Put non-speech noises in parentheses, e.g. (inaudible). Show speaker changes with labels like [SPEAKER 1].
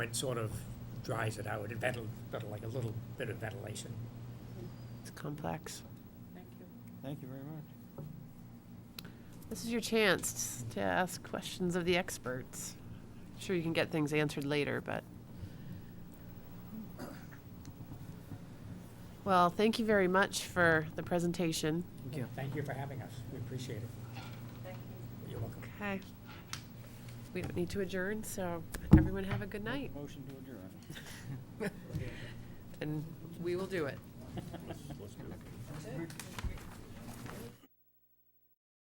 [SPEAKER 1] It sort of dries it out, it ventil, but like a little bit of ventilation.
[SPEAKER 2] It's complex.
[SPEAKER 3] Thank you.
[SPEAKER 4] Thank you very much.
[SPEAKER 2] This is your chance to ask questions of the experts. Sure, you can get things answered later, but. Well, thank you very much for the presentation.
[SPEAKER 4] Thank you.
[SPEAKER 1] Thank you for having us, we appreciate it.
[SPEAKER 3] Thank you.
[SPEAKER 1] You're welcome.
[SPEAKER 2] Okay. We don't need to adjourn, so everyone have a good night,
[SPEAKER 4] Motion to adjourn.
[SPEAKER 1] (laughs)
[SPEAKER 2] and we will do it.